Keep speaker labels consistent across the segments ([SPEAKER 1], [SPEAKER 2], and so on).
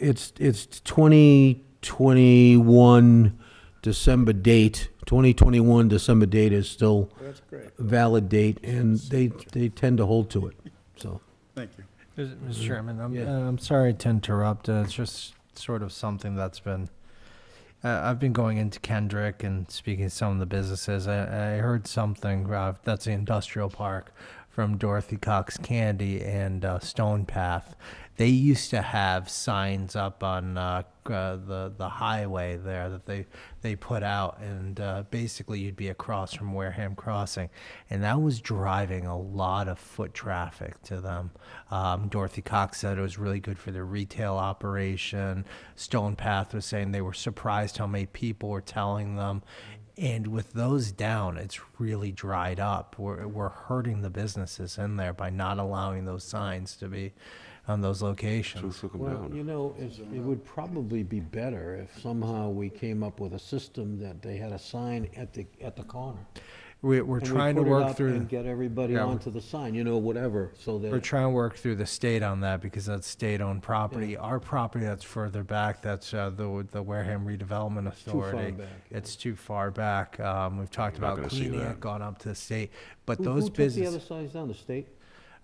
[SPEAKER 1] It's, it's 2021 December date, 2021 December date is still
[SPEAKER 2] That's great.
[SPEAKER 1] valid date, and they, they tend to hold to it, so.
[SPEAKER 2] Thank you.
[SPEAKER 3] Is- Mr. Chairman, I'm,
[SPEAKER 1] Yeah.
[SPEAKER 3] uh, I'm sorry to interrupt. Uh, it's just sort of something that's been. Uh, I've been going into Kendrick and speaking to some of the businesses. I, I heard something uh, that's the industrial park from Dorothy Cox Candy and uh, Stone Path. They used to have signs up on uh, uh, the the highway there that they they put out, and uh, basically you'd be across from Wareham Crossing, and that was driving a lot of foot traffic to them. Um, Dorothy Cox said it was really good for their retail operation. Stone Path was saying they were surprised how many people were telling them. And with those down, it's really dried up. We're, we're hurting the businesses in there by not allowing those signs to be on those locations.
[SPEAKER 1] Well, you know, it's- it would probably be better if somehow we came up with a system that they had a sign at the, at the corner.
[SPEAKER 3] We, we're
[SPEAKER 1] And we
[SPEAKER 3] trying to
[SPEAKER 1] put it
[SPEAKER 3] work
[SPEAKER 1] up
[SPEAKER 3] through.
[SPEAKER 1] And get everybody
[SPEAKER 3] Yeah.
[SPEAKER 1] onto the sign, you know, whatever, so that.
[SPEAKER 3] We're trying to work through the state on that because that's state-owned property. Our property that's further back, that's uh, the the Wareham Redevelopment
[SPEAKER 1] far
[SPEAKER 3] Authority.
[SPEAKER 1] back, yeah.
[SPEAKER 3] It's too far back. Um, We've talked
[SPEAKER 4] not
[SPEAKER 3] about
[SPEAKER 4] gonna see
[SPEAKER 3] cleaning
[SPEAKER 4] that.
[SPEAKER 3] it, gone up to the state, but
[SPEAKER 1] Who-
[SPEAKER 3] those
[SPEAKER 1] Who
[SPEAKER 3] businesses,
[SPEAKER 1] took the other signs down, the state?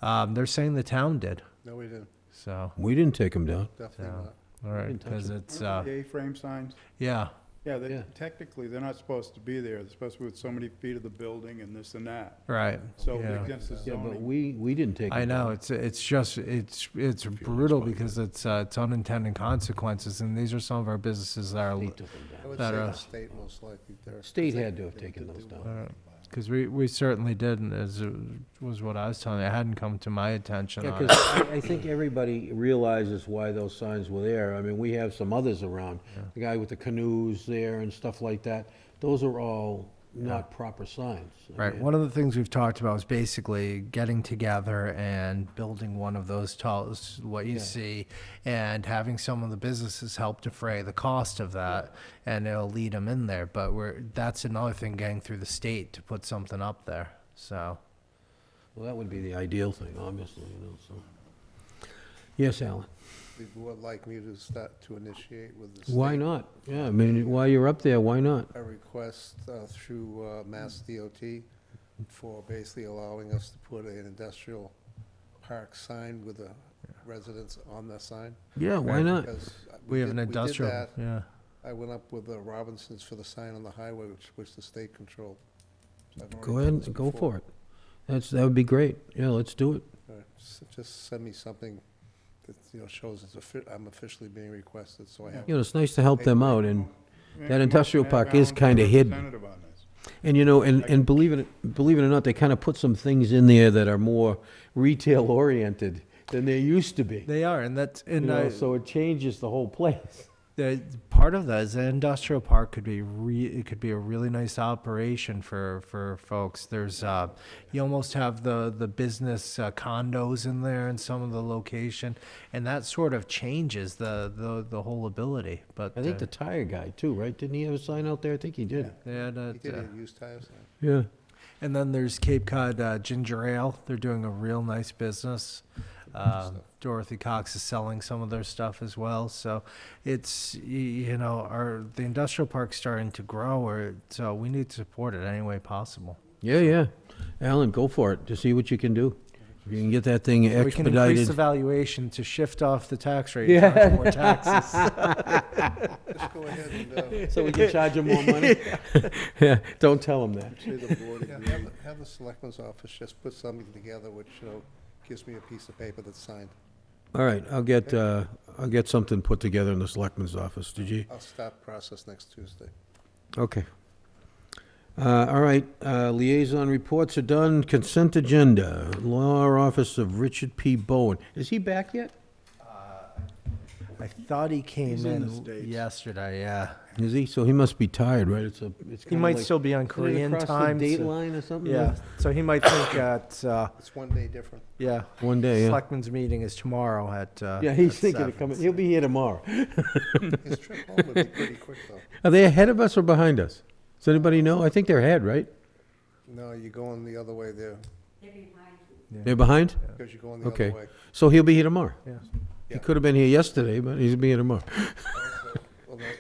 [SPEAKER 3] um, they're saying the town did,
[SPEAKER 2] No, we didn't.
[SPEAKER 3] so,
[SPEAKER 1] We didn't take them down.
[SPEAKER 2] Definitely
[SPEAKER 3] Yeah.
[SPEAKER 2] not.
[SPEAKER 3] all right,
[SPEAKER 1] didn't touch
[SPEAKER 3] because
[SPEAKER 1] it.
[SPEAKER 3] it's, uh,
[SPEAKER 2] The A-frame signs,
[SPEAKER 3] yeah.
[SPEAKER 2] yeah,
[SPEAKER 1] Yeah.
[SPEAKER 2] they, technically, they're not supposed to be there. They're supposed to be with so many feet of the building and this and that.
[SPEAKER 3] Right.
[SPEAKER 2] So
[SPEAKER 3] yeah.
[SPEAKER 2] against the
[SPEAKER 1] Yeah, but
[SPEAKER 2] zoning.
[SPEAKER 1] we, we didn't take them
[SPEAKER 3] I
[SPEAKER 1] down.
[SPEAKER 3] know it's it's just it's it's brutal because it's uh, it's unintended consequences, and these are some of our businesses that are
[SPEAKER 1] They took them down.
[SPEAKER 3] that are
[SPEAKER 5] State most likely there.
[SPEAKER 1] State had to have taken those down.
[SPEAKER 3] Because we, we certainly didn't, as it was what I was telling you. It hadn't come to my attention.
[SPEAKER 1] Yeah,
[SPEAKER 3] on it.
[SPEAKER 1] because I I think everybody realizes why those signs were there. I mean, we have some others around. The guy with the canoes there and stuff like that. Those are all not proper signs. I
[SPEAKER 3] Right.
[SPEAKER 1] mean,
[SPEAKER 3] One of the things we've talked about is basically getting together and building one of those tall, s- what you see, and having some of the businesses help defray the cost of that, and it'll lead them in there. But we're that's another thing getting through the state to put something up there. So
[SPEAKER 1] Well, that would be the ideal thing, obviously, you know, so. Yes, Alan?
[SPEAKER 5] Would you like me to start to initiate with the state?
[SPEAKER 1] Why not? Yeah, I mean, while you're up there, why not?
[SPEAKER 5] A request uh, through uh, Mass DOT for basically allowing us to put an industrial park sign with the residents on the sign.
[SPEAKER 1] Yeah, why
[SPEAKER 3] Right.
[SPEAKER 1] not?
[SPEAKER 5] Because
[SPEAKER 3] we have
[SPEAKER 5] did-
[SPEAKER 3] an
[SPEAKER 5] did
[SPEAKER 3] industrial.
[SPEAKER 5] that.
[SPEAKER 3] yeah.
[SPEAKER 5] I went up with the Robinsons for the sign on the highway, which, which the state controlled. So I've already
[SPEAKER 1] Go
[SPEAKER 5] done
[SPEAKER 1] ahead,
[SPEAKER 5] this
[SPEAKER 1] and go
[SPEAKER 5] before.
[SPEAKER 1] for it. That's, that would be great. Yeah, let's do it.
[SPEAKER 5] All right, s- Just send me something that, you know, shows it's offi- I'm officially being requested, so I have
[SPEAKER 1] You know, it's nice to help them out, and,
[SPEAKER 2] Make
[SPEAKER 1] that
[SPEAKER 2] a
[SPEAKER 1] industrial
[SPEAKER 2] motion to have
[SPEAKER 1] park is
[SPEAKER 2] Alan
[SPEAKER 1] kinda
[SPEAKER 2] be
[SPEAKER 1] hidden.
[SPEAKER 2] representative on this.
[SPEAKER 1] and you know, and, and believe it, believe it or not, they kind of put some things in there that are more retail-oriented than they used to be.
[SPEAKER 3] They are, and that's
[SPEAKER 1] You
[SPEAKER 3] and
[SPEAKER 1] know,
[SPEAKER 3] I-
[SPEAKER 1] so it changes the whole place.
[SPEAKER 3] The part of that is an industrial park could be re, it could be a really nice operation for for folks. There's uh, you almost have the the business uh, condos in there in some of the location, and that sort of changes the the, the whole ability. But uh,
[SPEAKER 1] I think the tire guy too, right? Didn't he have a sign out there? I think he did.
[SPEAKER 3] the yeah, that,
[SPEAKER 5] He did
[SPEAKER 3] uh,
[SPEAKER 5] a used tire sign.
[SPEAKER 1] Yeah.
[SPEAKER 3] and then there's Cape Cod uh, Ginger Ale. They're doing a real nice business. Uh, Dorothy Cox is selling some of their stuff as well. So it's y- you know our the industrial park's starting to grow, or so we need to support it any way possible.
[SPEAKER 1] Yeah, yeah. Alan, go for it. To see what you can do. If you can get that thing
[SPEAKER 3] We can increase the
[SPEAKER 1] expedited.
[SPEAKER 3] valuation to shift off the tax rate. and charge more taxes.
[SPEAKER 5] Just go ahead and, uh,
[SPEAKER 1] So we can charge him more money? Yeah, don't tell him that.
[SPEAKER 5] say the board, yeah, have, the- have the selectman's office just put something together which, you know, gives me a piece of paper that's signed.
[SPEAKER 1] All right, I'll get, uh, I'll get something put together in the selectman's office, did you?
[SPEAKER 5] I'll start process next Tuesday.
[SPEAKER 1] Okay. Uh, all right, uh, liaison reports are done, consent agenda, law office of Richard P. Bowen. Is he back yet?
[SPEAKER 3] I thought he came
[SPEAKER 2] He's in
[SPEAKER 3] in,
[SPEAKER 2] the States.
[SPEAKER 3] yesterday. Yeah,
[SPEAKER 1] Is he? So he must be tired, right? It's a, it's
[SPEAKER 3] he
[SPEAKER 1] kinda
[SPEAKER 3] might
[SPEAKER 1] like-
[SPEAKER 3] still be on
[SPEAKER 1] Isn't it
[SPEAKER 3] Korean
[SPEAKER 1] across the
[SPEAKER 3] time.
[SPEAKER 1] date
[SPEAKER 3] so-
[SPEAKER 1] line or something?
[SPEAKER 3] yeah, so he might think that. Uh,
[SPEAKER 5] It's one day different.
[SPEAKER 3] Yeah.
[SPEAKER 1] One day, yeah.
[SPEAKER 3] Selectmen's meeting is tomorrow at, uh.
[SPEAKER 1] Yeah, he's
[SPEAKER 3] at
[SPEAKER 1] thinking of
[SPEAKER 3] seven.
[SPEAKER 1] coming, he'll be here tomorrow.
[SPEAKER 5] His trip home would be pretty quick, though.
[SPEAKER 1] Are they ahead of us or behind us? Does anybody know? I think they're ahead, right?
[SPEAKER 5] No, you're going the other way there,
[SPEAKER 1] They're behind?
[SPEAKER 5] because you're going the
[SPEAKER 1] Okay.
[SPEAKER 5] other way.
[SPEAKER 1] So he'll be here tomorrow?
[SPEAKER 3] Yeah.
[SPEAKER 1] He could have been here yesterday, but he's being tomorrow.